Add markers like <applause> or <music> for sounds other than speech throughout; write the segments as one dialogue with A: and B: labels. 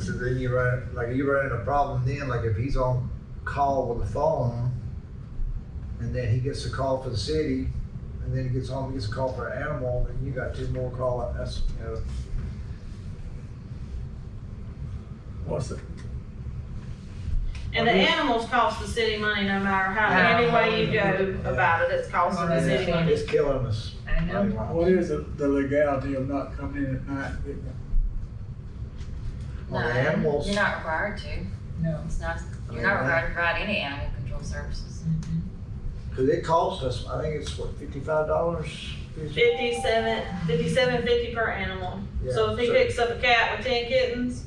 A: so then you run like you run into a problem then like if he's on call with the phone and then he gets a call for the city and then he gets home he gets a call for an animal and you got two more call that's you know
B: What's the,
C: And the animals cost the city money no matter how, any way you go about it, it's costing the city
A: it's,
C: money.
A: it's killing us
D: I know.
B: what is the the legality of not coming in at night?
A: Well, the
E: No,
A: animals-
E: You're not required to.
D: No.
E: It's not,
A: I
E: you're
A: mean, that-
E: not required to provide any animal control services.
D: Mm-hmm.
A: because it costs us i think it's what $55
C: Fifty-seven, fifty-seven fifty per animal.
A: Yeah,
C: So if he
A: so-
C: picks up a cat with ten kittens,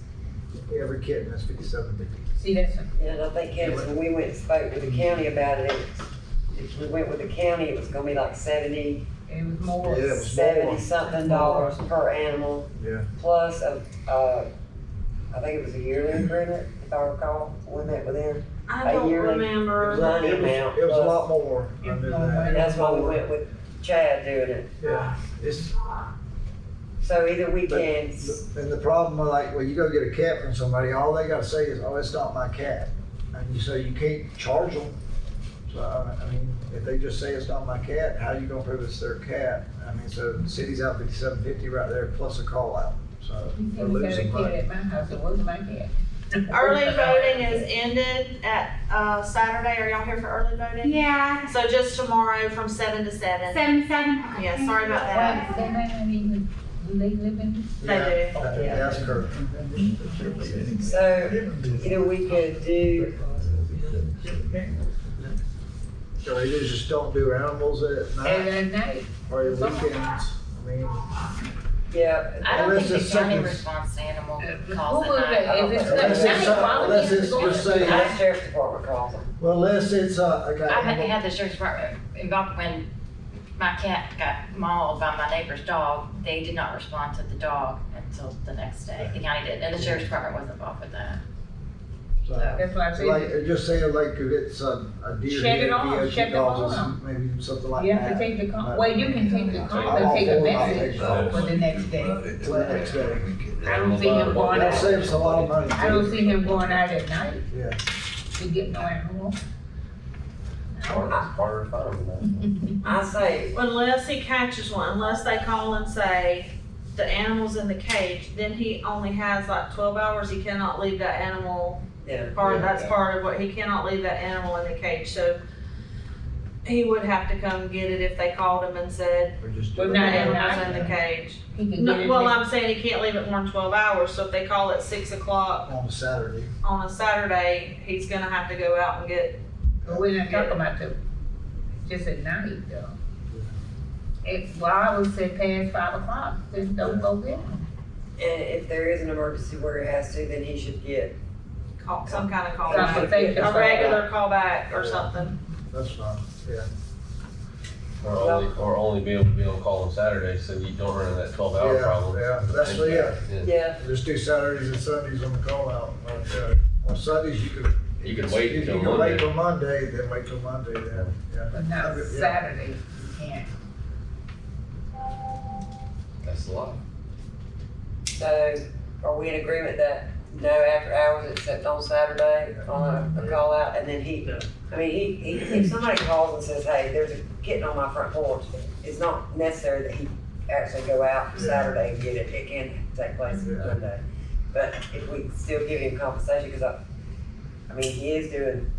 A: every kitten is 57 dollars
D: See, that's,
F: And I think, Kevin, when we went and spoke with the county about it, it was- if we went with the county, it was gonna be like seventy,
D: it was more.
A: Yeah. It was more.
F: seventy something dollars per animal.
A: Yeah.
F: Plus a, uh, I think it was a yearly agreement, if I recall, when that with them.
C: I
F: A
C: don't
F: yearly-
C: remember.
F: It was
A: it was, it was a lot more I knew that.
F: And that's why we went with Chad doing it.
A: yeah it's
F: So either we
A: But-
F: can,
A: And the problem, with, like, when you go get a cat from somebody, all they gotta say is, oh, it's not my cat. And you say, you can't charge them. So, I I mean, if they just say it's not my cat, how you gonna prove it's their cat? I mean, so the city's out fifty-seven fifty right there, plus a call out, so we're losing money.
D: At my house, it wasn't my cat.
C: Early
D: <laughs>
C: voting is ended at, uh, Saturday. Are y'all here for early voting?
G: Yeah,
C: So just tomorrow from seven to seven.
G: seven, seven. okay.
C: Yeah, sorry about that.
D: Well, they may not even, do they live in?
C: They do.
A: That- That's correct.
F: so either we could do,
A: So they just don't do animals at night
D: At night.
A: or at weekends. I mean,
F: yeah,
E: I don't
A: Unless
E: think
A: it's
E: the county
A: something-
E: responds to animal calls
D: Who
E: at
D: Uh, would,
E: night.
D: if it's not,
A: Unless it's,
D: night, why
A: uh,
D: would
A: unless
D: you
A: it's,
D: go
A: just
D: to-
A: say,
F: our sheriff's department calls them.
A: well, unless it's, uh, I got.
E: I had had the sheriff's department involved when my cat got mauled by my neighbor's dog. They did not respond to the dog until the next day. The county did, and the sheriff's department was involved with that.
A: so-
D: That's why I
A: So like,
D: said,
A: it just say like if it's a, a deer,
D: Shed it
A: hit,
D: off,
A: VOC
D: shed the
A: calls
D: bone
A: us, maybe something like
D: you
A: that.
D: have to take the, con- well, you can take the, con- but take a message for the next day.
A: To the next day.
D: I don't see him going
A: That
D: out,
A: saves a lot of money.
D: I don't see him going out at night
A: too. Yeah,
D: to get no animal.
F: I say,
C: Unless he catches one, unless they call and say the animal's in the cage, then he only has like twelve hours. He cannot leave that animal.
F: Yeah.
C: Part,
A: Yeah.
C: that's part of what, he cannot leave that animal in the cage, so he would have to come get it if they called him and said
A: or just. do
D: Well,
C: the
A: it.
D: not at
C: animal's in the cage.
D: He can get
C: No,
D: it.
C: well,
D: next-
C: I'm saying he can't leave it more than twelve hours, so if they call at six o'clock
A: On a Saturday.
C: on a Saturday, he's gonna have to go out and get,
D: But we're not talking about the, just at night though. It, well, I would say past five o'clock, just don't go there.
F: And if there is an emergency where it has to, then he should get,
C: call, some kind of call
D: Some
C: back.
D: safety
C: A
D: call.
C: regular call back or something.
A: That's fine, yeah.
H: Or only, or only be able to be on call on Saturday, so you don't run into that twelve hour
A: Yeah,
H: problem.
A: yeah, that's what- yeah.
F: yeah,
A: Just do Saturdays and Sundays on the call out. Like, uh, On Sundays, you could.
H: You could wait
A: if
H: until
A: You could wait
H: Monday.
A: till Monday, then wait till Monday, then, yeah.
D: But not
A: Yeah.
D: Saturday, you can't.
H: That's a lot.
F: so are we in agreement that no after hours except on Saturday on a, a call out? And then he, I mean, he, he, if somebody calls and says, hey, there's a kitten on my front porch, it's not necessary that he actually go out Saturday and get it, it can take place
A: Yeah.
F: Monday. But if we still give him compensation, cause I, I mean, he is doing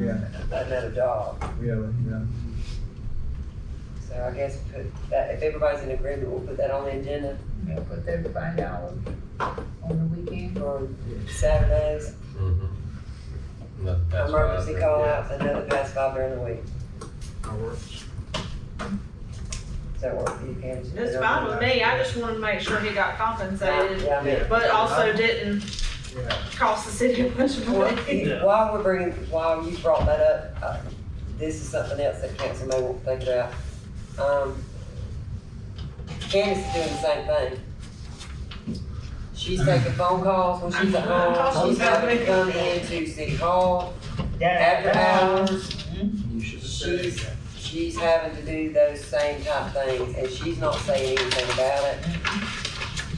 A: Yeah,
F: another job.
A: yeah, yeah.
F: So I guess put that, if everybody's in agreement, we'll put that on the agenda
D: You know, put thirty-five dollars on the weekend.
F: for Saturdays.
H: Mm-hmm.
F: Emergency call outs and then the past five during the week.
A: That works.
F: Does that work for you, Pam?
C: It's fine with me, I just wanted to make sure he got compensated,
F: Yeah, I mean,
C: but also didn't
A: Yeah,
C: cost the city a bunch of
F: well,
C: <laughs> money.
F: while we're bringing, while you brought that up, uh, this is something else that council may want to think about. Um, Candace is doing the same thing. She's taking phone calls when she's at home, she's having to come into city hall after hours.
A: you should say
F: She's, she's having to do those same type things, and she's not saying anything about it.